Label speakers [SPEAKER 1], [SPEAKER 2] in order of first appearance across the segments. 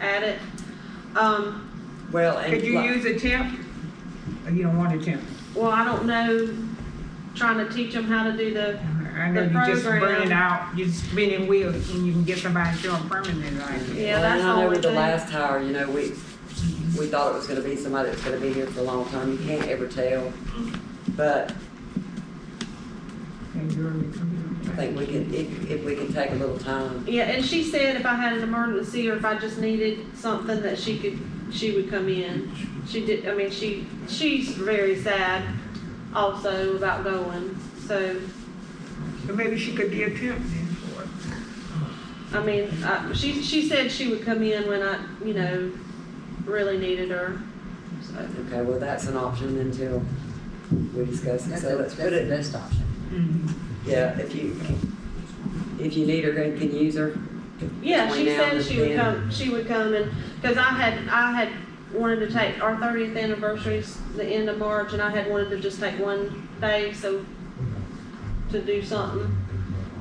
[SPEAKER 1] at it. Um,
[SPEAKER 2] Well, and.
[SPEAKER 3] Could you
[SPEAKER 2] like-
[SPEAKER 3] use a temp? Or You don't want a temp.
[SPEAKER 1] well, I don't know, trying to teach them how to do the,
[SPEAKER 3] I know
[SPEAKER 1] The
[SPEAKER 3] you just
[SPEAKER 1] program.
[SPEAKER 3] burning out, you're spinning wheels and you can get somebody to them permanent like that.
[SPEAKER 1] yeah,
[SPEAKER 2] Well,
[SPEAKER 1] that's
[SPEAKER 2] and
[SPEAKER 1] the
[SPEAKER 2] I know
[SPEAKER 1] only
[SPEAKER 2] with the
[SPEAKER 1] thing.
[SPEAKER 2] last hire, you know, we, we thought it was gonna be somebody that's gonna be here for a long time, you can't ever tell. But Mm-hmm.
[SPEAKER 3] And you're only coming
[SPEAKER 2] I
[SPEAKER 3] up.
[SPEAKER 2] think we can, if, if we can take a little time,
[SPEAKER 1] Yeah, and she said if I had an emergency or if I just needed something that she could, she would come in. She did, I mean, she, she's very sad also about going, so,
[SPEAKER 3] So maybe she could be a temp then for it.
[SPEAKER 1] I mean, uh, she, she said she would come in when I, you know, really needed her, so.
[SPEAKER 2] okay, well, that's an option until we discuss it,
[SPEAKER 4] That's,
[SPEAKER 2] so
[SPEAKER 4] a-
[SPEAKER 2] let's
[SPEAKER 4] that's
[SPEAKER 2] put
[SPEAKER 4] the
[SPEAKER 2] it,
[SPEAKER 4] best option.
[SPEAKER 2] Mm-hmm. yeah, if you, if you need her, can can use her.
[SPEAKER 1] Yeah,
[SPEAKER 2] Between
[SPEAKER 1] she
[SPEAKER 2] now
[SPEAKER 1] said
[SPEAKER 2] and
[SPEAKER 1] she would
[SPEAKER 2] then.
[SPEAKER 1] come, she would come and, cause I had, I had wanted to take, our thirtieth anniversary's the end of March and I had wanted to just take one day, so to do something.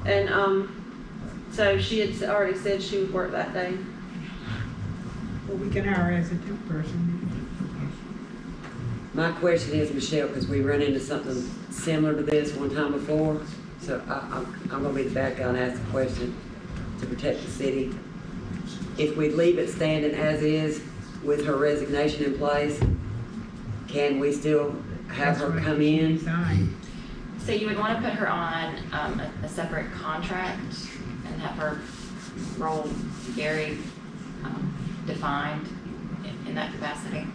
[SPEAKER 1] And, um, so she had already said she would work that day.
[SPEAKER 3] Well, we can hire her as a temp person.
[SPEAKER 2] My question is, Michelle, because we run into something similar to this one time before, so I, I'm, I'm gonna be the bad guy and ask the question to protect the city. If we leave it standing as is with her resignation in place, can we still have
[SPEAKER 3] That's
[SPEAKER 2] her
[SPEAKER 3] right,
[SPEAKER 2] come
[SPEAKER 3] she
[SPEAKER 2] in?
[SPEAKER 3] resigned.
[SPEAKER 5] So you would want to put her on um, a, a separate contract and have her role very um, defined in, in that capacity.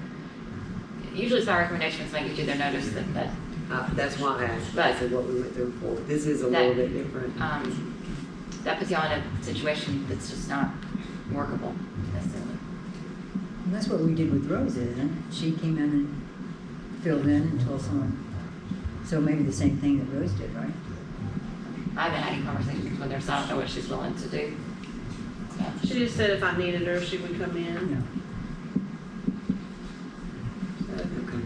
[SPEAKER 5] Usually it's our recommendation is when you do their notice that, that,
[SPEAKER 2] Uh, that's why I asked,
[SPEAKER 5] Right.
[SPEAKER 2] that's what we went through before. This is a
[SPEAKER 5] That-
[SPEAKER 2] little bit different.
[SPEAKER 5] um, that puts you all in a situation that's just not workable necessarily.
[SPEAKER 4] And that's what we did with Rose, isn't it? She came in and filled in until someone, so maybe the same thing that Rose did, right?
[SPEAKER 5] I haven't had any conversations with her, so I don't know what she's willing to do. So,
[SPEAKER 1] She just said if I needed her, she would come in.
[SPEAKER 4] No.
[SPEAKER 1] so.
[SPEAKER 2] Okay.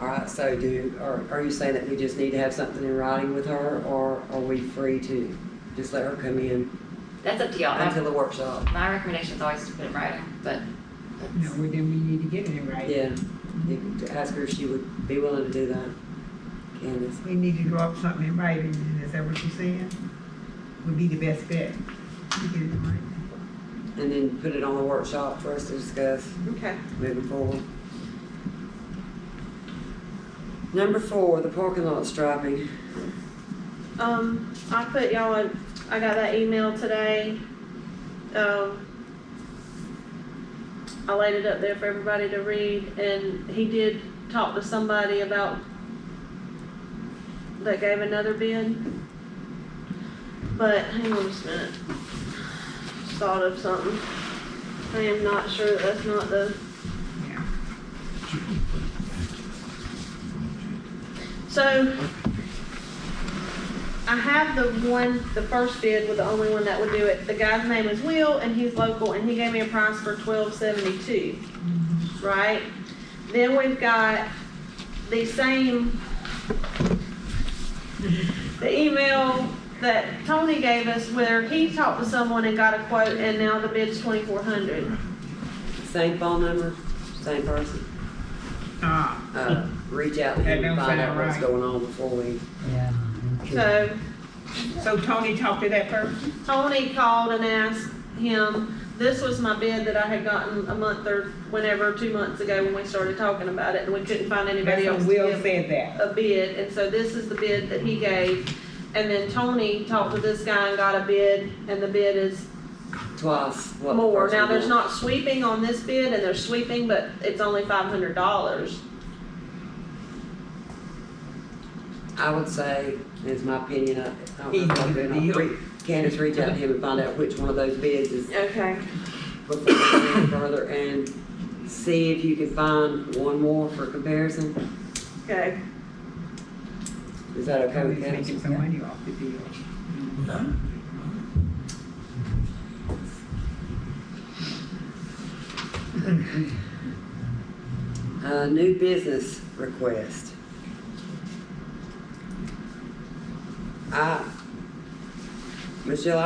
[SPEAKER 2] All right, so do, are, are you saying that we just need to have something in writing with her, or are we free to just let her come in
[SPEAKER 5] That's up to y'all.
[SPEAKER 2] until
[SPEAKER 5] My,
[SPEAKER 2] the workshop?
[SPEAKER 5] my recommendation is always to put it in writing, but
[SPEAKER 3] No, well, then we need to get it right.
[SPEAKER 2] Yeah, you- to ask her if she would be willing to do that, Candace.
[SPEAKER 3] We need to draw up something in writing, is that what you're saying? Would be the best bet. to get it in writing.
[SPEAKER 2] And then put it on the workshop for us to discuss.
[SPEAKER 1] Okay.
[SPEAKER 2] moving forward. Number four, the parking lot striping.
[SPEAKER 1] Um, I put y'all in, I got that email today. Um, I laid it up there for everybody to read and he did talk to somebody about that gave another bid. But hang on just a minute. Just Thought of something. I am not sure that that's not the,
[SPEAKER 3] Yeah.
[SPEAKER 1] so I have the one, the first bid with the only one that would do it. The guy's name is Will and he's local and he gave me a price for twelve seventy-two, right? Then we've got the same, the email that Tony gave us where he talked to someone and got a quote and now the bid's twenty-four hundred.
[SPEAKER 2] Same phone number, same person.
[SPEAKER 3] Uh,
[SPEAKER 2] Uh, reach out to
[SPEAKER 3] That
[SPEAKER 2] him and
[SPEAKER 3] don't
[SPEAKER 2] find out
[SPEAKER 3] sound
[SPEAKER 2] what's
[SPEAKER 3] right.
[SPEAKER 2] going on before we
[SPEAKER 4] Yeah.
[SPEAKER 1] So
[SPEAKER 3] So Tony talked to that person?
[SPEAKER 1] Tony called and asked him, this was my bid that I had gotten a month or whenever, two months ago when we started talking about it, and we couldn't find
[SPEAKER 3] That's
[SPEAKER 1] anybody else
[SPEAKER 3] what
[SPEAKER 1] to
[SPEAKER 3] Will
[SPEAKER 1] give
[SPEAKER 3] said that.
[SPEAKER 1] a bid, and so this is the bid that he gave. And then Tony talked to this guy and got a bid, and the bid is
[SPEAKER 2] twice what the
[SPEAKER 1] more.
[SPEAKER 2] person
[SPEAKER 1] Now, there's not
[SPEAKER 2] wants.
[SPEAKER 1] sweeping on this bid, and there's sweeping, but it's only five hundred dollars.
[SPEAKER 2] I would say, is my opinion, I I don't
[SPEAKER 3] Easy
[SPEAKER 2] know if I'm doing it.
[SPEAKER 3] deal.
[SPEAKER 2] Re- Candace, reach out to him and find out which one of those bids is
[SPEAKER 1] Okay.
[SPEAKER 2] before we go any further and see if you can find one more for comparison.
[SPEAKER 1] Okay.
[SPEAKER 2] Is that okay with
[SPEAKER 3] Tony's
[SPEAKER 2] Candace?
[SPEAKER 3] making some money off the deal.
[SPEAKER 2] Uh, new business request. I, Michelle,